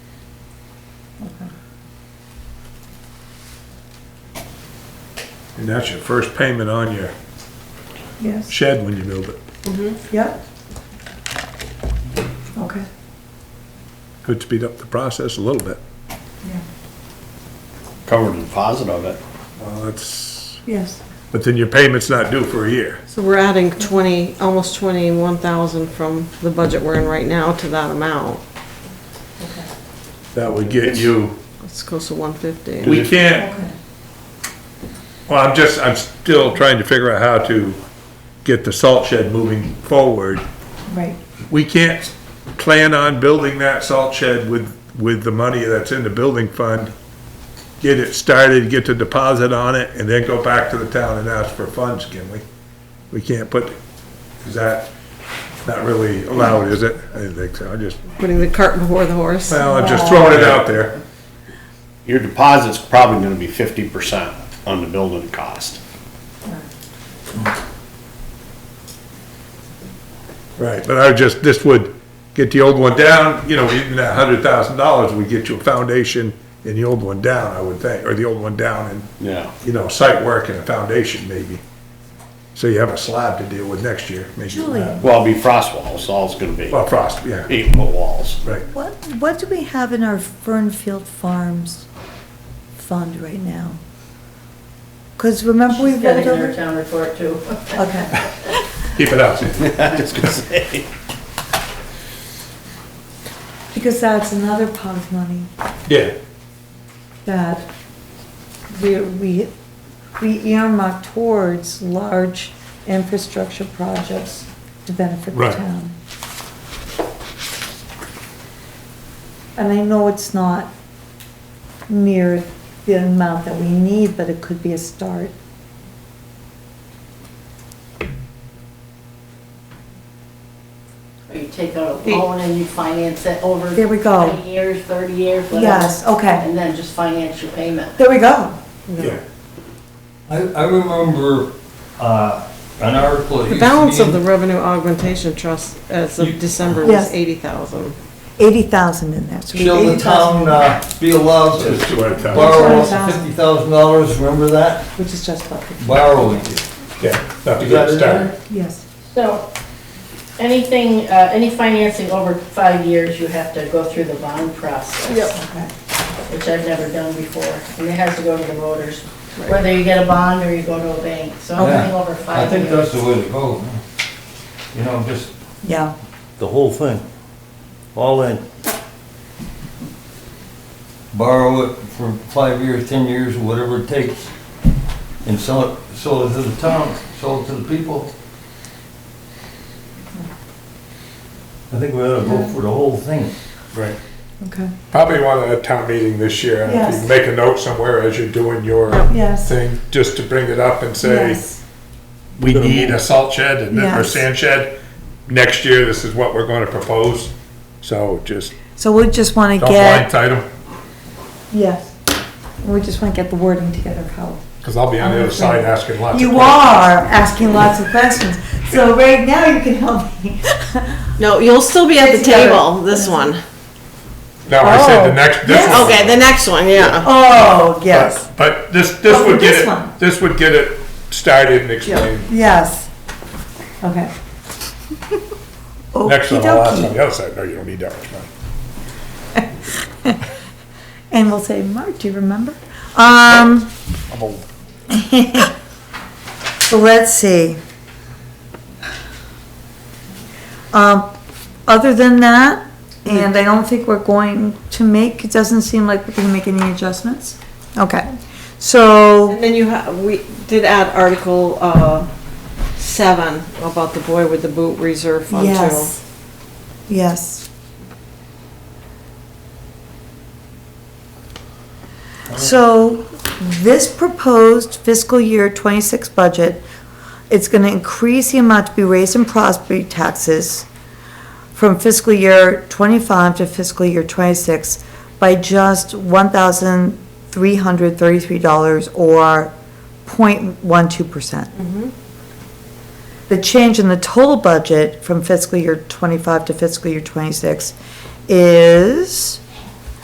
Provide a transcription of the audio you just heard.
And that's your first payment on your Yes, shed when you build it. yep. Okay, Could speed up the process a little bit. covered the deposit of it. Well, that's, yes, but then your payment's not due for a year. So we're adding twenty, almost twenty-one thousand from the budget we're in right now to that amount. That would get you, It's close to one fifty. we can't, okay. well, I'm just, I'm still trying to figure out how to get the salt shed moving forward. Right, We can't plan on building that salt shed with, with the money that's in the building fund. Get it started, get the deposit on it, and then go back to the town and ask for funds, can we? We can't put, is that not really allowed, is it? I didn't think so, I just, Putting the cart before the horse. well, I'm just throwing it out there. Your deposit's probably gonna be fifty percent on the building cost. Right, but I would just, this would get the old one down, you know, even that hundred thousand dollars would get you a foundation and the old one down, I would think, or the old one down and Yeah. you know, site work and a foundation maybe. So you have a slab to deal with next year, maybe. Julie. Well, it'll be frost walls, so all it's gonna be Well, frost, yeah, eight foot walls. right. What, what do we have in our Fernfield Farms fund right now? Because remember we She's got rolled it in her over? town report too. Okay, Keep it up. I was gonna say. because that's another pot of money Yeah, that we, we, we earmark towards large infrastructure projects to benefit the Right. town. And I know it's not near the amount that we need, but it could be a start. Or you take out a loan and you finance it over. There we go. 20 years, thirty years, whatever. Yes, okay, And then just finance your payment. there we go. yeah. I, I remember, uh, an article. that The used to balance be of the in- revenue augmentation trust as You- of December was Yes. eighty thousand. Eighty thousand in there. so we- Shall the town, uh, be allowed So it's to 200,000. borrow up to $200,000. fifty thousand dollars, remember that? Which is just about fifty, Borrowing. Yeah, not to get Is that in started. yes. So anything, uh, any financing over five years, you have to go through the bond process. Okay. Which I've never done before. And it has to go to the voters, whether you get a bond or you go to a bank. So Yeah. anything over I five think years. that's the way to go. man. You know, just Yeah, The whole thing, all in. borrow it for five years, ten years, whatever it takes, and sell it, sell it to the town, sell it to the people. I think we ought to vote for the whole thing. Right. okay, Probably want a town meeting this year, and if Yes. you make a note somewhere as you're doing your yes, thing, just to bring it up and say, yes, we need a salt shed and then, or Yes. sand shed. Next year, this is what we're gonna propose, so just so we just wanna don't get, blindside them, yes, we just wanna get the wording together, how. cause I'll be on the other side asking lots of You questions. are asking lots of questions, so right now you can help me. No, you'll still be at It's the together. table, this one. No, I said Oh. the next, this Yes. one. Okay, the next one, yeah. Oh, But- yes, But this, this Oh, would get this one. it, this would get it started and explained. yes, okay. Next one, Okey I'll ask dokey. on the other side, no, you don't need that much money. And we'll say, Mark, do you remember? Um. So let's see. Um, other than that, and I don't think we're going to make, it doesn't seem like we're gonna make any adjustments. Okay, so, And then you ha we did add article, uh, seven about the boy with the boot reserve fund too. yes. Yes. So this proposed fiscal year twenty-six budget, it's gonna increase the amount to be raised in property taxes from fiscal year twenty-five to fiscal year twenty-six by just one thousand three hundred thirty-three dollars or 0.12 percent. The change in the total budget from fiscal year twenty-five to fiscal year twenty-six is